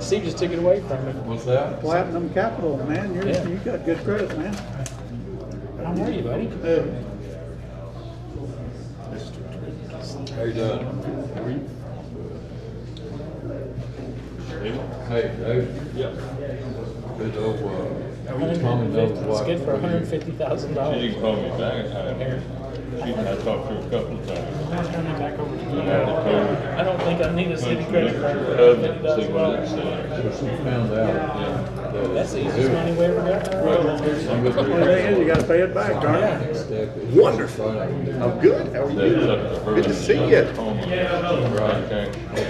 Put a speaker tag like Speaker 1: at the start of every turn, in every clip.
Speaker 1: Steve just took it away from me.
Speaker 2: What's that?
Speaker 3: Platinum Capital, man, you're,
Speaker 1: Yeah.
Speaker 3: you got good credit, man.
Speaker 1: How are you, buddy?
Speaker 3: Uh,
Speaker 2: How you doing? Hey, Dave.
Speaker 4: Yeah.
Speaker 2: Good old, uh, Tommy
Speaker 1: 150. It's
Speaker 2: knows what-
Speaker 1: good for
Speaker 2: what he-
Speaker 4: She
Speaker 1: $150,000.
Speaker 4: didn't call me back. I, she, I talked to her a couple of times.
Speaker 1: I'll turn it back over to you.
Speaker 4: I had to call
Speaker 1: I don't think I need a city credit card for
Speaker 4: her husband, see what it
Speaker 1: $150,000.
Speaker 2: So
Speaker 4: said.
Speaker 2: she found out. that
Speaker 1: That's the
Speaker 2: it's
Speaker 1: easiest
Speaker 2: due.
Speaker 1: money we ever got.
Speaker 2: I'm gonna do
Speaker 3: Only thing is, you gotta pay it back, darn it.
Speaker 1: Yeah.
Speaker 2: it.
Speaker 5: Wonderful.
Speaker 2: Right.
Speaker 5: I'm good. How are
Speaker 4: That's up to her.
Speaker 5: you?
Speaker 4: Oh,
Speaker 5: Good to see you.
Speaker 4: Okay.
Speaker 2: It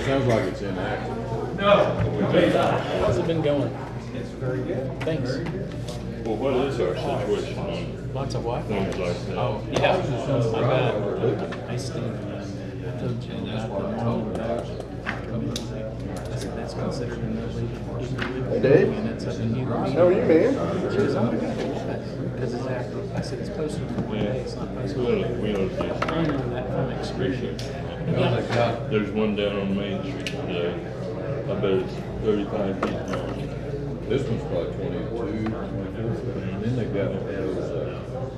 Speaker 2: sounds like it's inactive.
Speaker 1: How's it been going? It's very good. Thanks.
Speaker 4: Well, what is our situation on
Speaker 1: Lots of what?
Speaker 4: things like that?
Speaker 1: Oh, yeah. I bet. I still. I told you about the model. That's, that's considered an illegal. illegal
Speaker 5: Hey, Dave.
Speaker 1: units up in New
Speaker 5: How are
Speaker 1: York.
Speaker 5: you, man?
Speaker 1: She goes, oh my God, because it's after, I said, it's posted for one day, it's not posted.
Speaker 4: We'll, we'll just
Speaker 1: I know that from
Speaker 4: appreciate
Speaker 1: experience.
Speaker 4: it.
Speaker 1: Yeah.
Speaker 4: There's one down on Main Street today. I bet it's thirty-five feet long.
Speaker 2: This one's probably twenty-two, twenty-four, and then they got those, uh,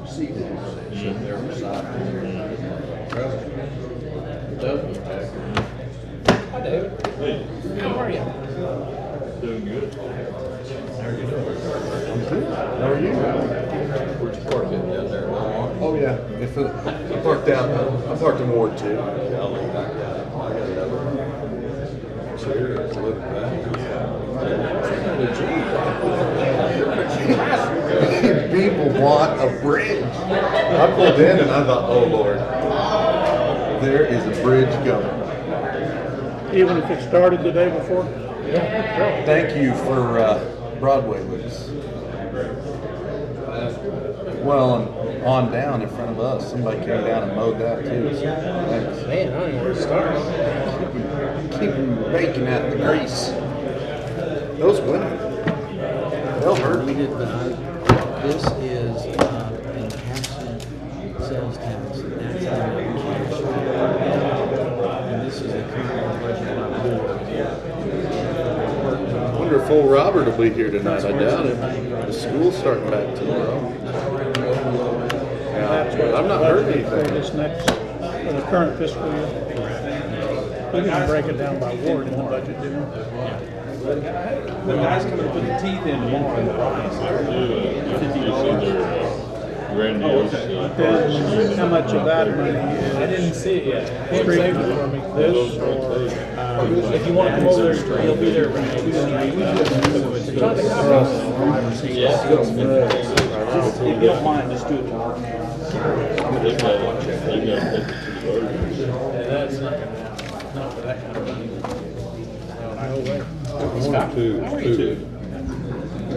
Speaker 2: seats that sit there beside them. That was accurate.
Speaker 1: Hi, David.
Speaker 4: Hey,
Speaker 1: How are you?
Speaker 4: doing good?
Speaker 5: How are you?
Speaker 2: Where'd you park it down there?
Speaker 5: Oh, yeah. If it- I parked out, I parked in Ward two. Well,
Speaker 2: Serious, look
Speaker 5: People want a bridge. I pulled in and I thought, oh, Lord, there is a bridge coming.
Speaker 3: Even if it started the day before,
Speaker 5: Thank you for uh, Broadway Lucas. Well, and on down in front of us, somebody came down and mowed that too. so Thanks.
Speaker 1: Man, I don't know where to start.
Speaker 5: keep them baking out the grease. Those women, they'll hurt me.
Speaker 6: We did, but I, this is, uh, in cash sales tax, and that's how we cash. And this is the current budget by
Speaker 5: Wonder if old Robert will be here tonight. I doubt it. The school's starting back tomorrow.
Speaker 3: that's
Speaker 5: Yeah,
Speaker 3: what.
Speaker 5: I'm not hurting
Speaker 3: For
Speaker 5: anything.
Speaker 3: this next, for the current fiscal year. We can break it down by ward in the budget, didn't we?
Speaker 7: The guy's coming to put the teeth in tomorrow in the price.
Speaker 4: Do, uh, just either grandiose. uh,
Speaker 3: Depends how much of that money is.
Speaker 1: I didn't see it yet.
Speaker 3: Street for me. This or, um,
Speaker 1: If you want to come over, he'll be there.
Speaker 7: If you don't mind, just do it tomorrow.
Speaker 4: They got, they got fifty-two versions.
Speaker 1: That's not gonna happen. Not for that kind of money. No way.
Speaker 2: One, two, two.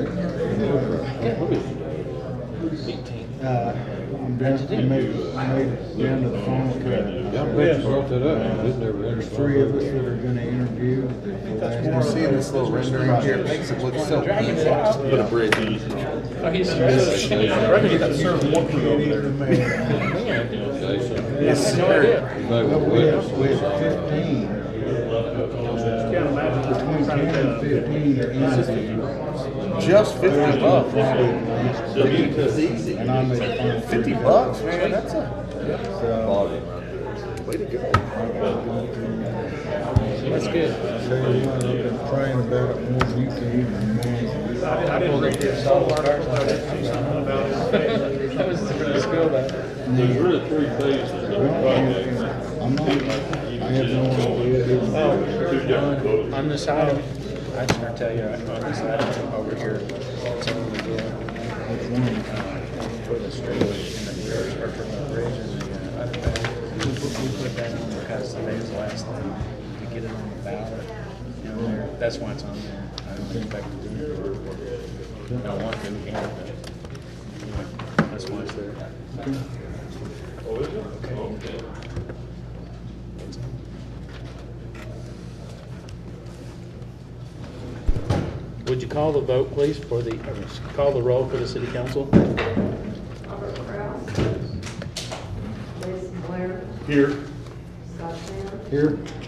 Speaker 8: Uh, I made, I made it down to the final cut.
Speaker 2: Yeah, I'm glad you brought that up. This never entered.
Speaker 8: Three of us that are gonna interview. the
Speaker 5: You're seeing this little rendering here. It makes it look so easy. Put a bridge in.
Speaker 1: Oh, he's just, I reckon he's got served one for
Speaker 8: Committee of the mayor.
Speaker 2: Jason,
Speaker 5: Yes,
Speaker 1: No idea.
Speaker 2: they were
Speaker 8: But we
Speaker 2: witness.
Speaker 8: have, we have fifteen,
Speaker 3: can't imagine
Speaker 8: between
Speaker 3: trying
Speaker 8: ten and
Speaker 3: to,
Speaker 8: fifteen are easy.
Speaker 5: Just fifty bucks.
Speaker 8: bucks. And I made the final.
Speaker 5: Fifty bucks, man, that's a.
Speaker 8: So,
Speaker 5: Way to go.
Speaker 1: That's good.
Speaker 8: so you want to look at praying about it more than you can even imagine.
Speaker 3: I didn't read this whole article, I didn't see something about it.
Speaker 1: That was really cool, though.
Speaker 4: There's really three phases of the project.
Speaker 8: I'm not, I have no idea. It was-
Speaker 4: Two different votes.
Speaker 6: On this item, I just gotta tell you, on this item over here, it's only good. It's one, uh, for the street and the bridge, or for the bridge and the, uh, other thing. We put, we put that on because today's the last thing to get it on the ballot. You know, there- that's why it's on there. I don't expect to do it. Don't want to, can't. but That's why it's there.
Speaker 4: Oh, is it? Okay.
Speaker 1: Would you call the vote, please, for the, or call the roll for the city council?
Speaker 9: Robert Kraus. Jason Blair.
Speaker 5: Here.
Speaker 9: Scott Sands.
Speaker 8: Here,